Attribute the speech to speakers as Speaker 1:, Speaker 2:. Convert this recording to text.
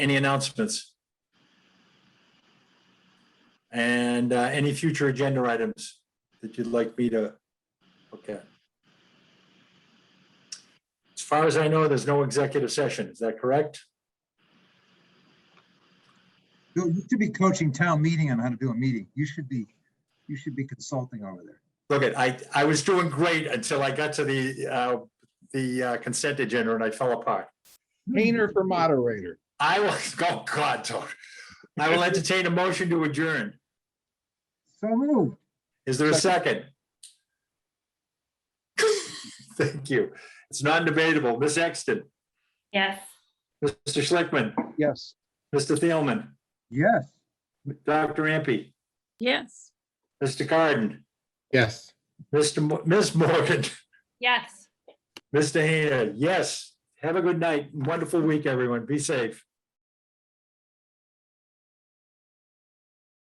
Speaker 1: Any announcements? And uh, any future agenda items that you'd like me to, okay. As far as I know, there's no executive session. Is that correct?
Speaker 2: Bill, you should be coaching town meeting on how to do a meeting. You should be, you should be consulting over there.
Speaker 1: Look, at I, I was doing great until I got to the, uh, the uh, consent agenda and I fell apart.
Speaker 3: Painter for moderator.
Speaker 1: I will, oh God, Tony. I will entertain a motion to adjourn.
Speaker 2: So moved.
Speaker 1: Is there a second? Thank you. It's non-debatable. Ms. Exton,
Speaker 4: Yes.
Speaker 1: Mr. Schlickman,
Speaker 3: Yes.
Speaker 1: Mr. Thielman,
Speaker 2: Yes.
Speaker 1: Dr. Ampe,
Speaker 4: Yes.
Speaker 1: Mr. Carden,
Speaker 3: Yes.
Speaker 1: Mr. Mo- Ms. Morgan,
Speaker 4: Yes.
Speaker 1: Mr. Hand. Yes. Have a good night. Wonderful week, everyone. Be safe.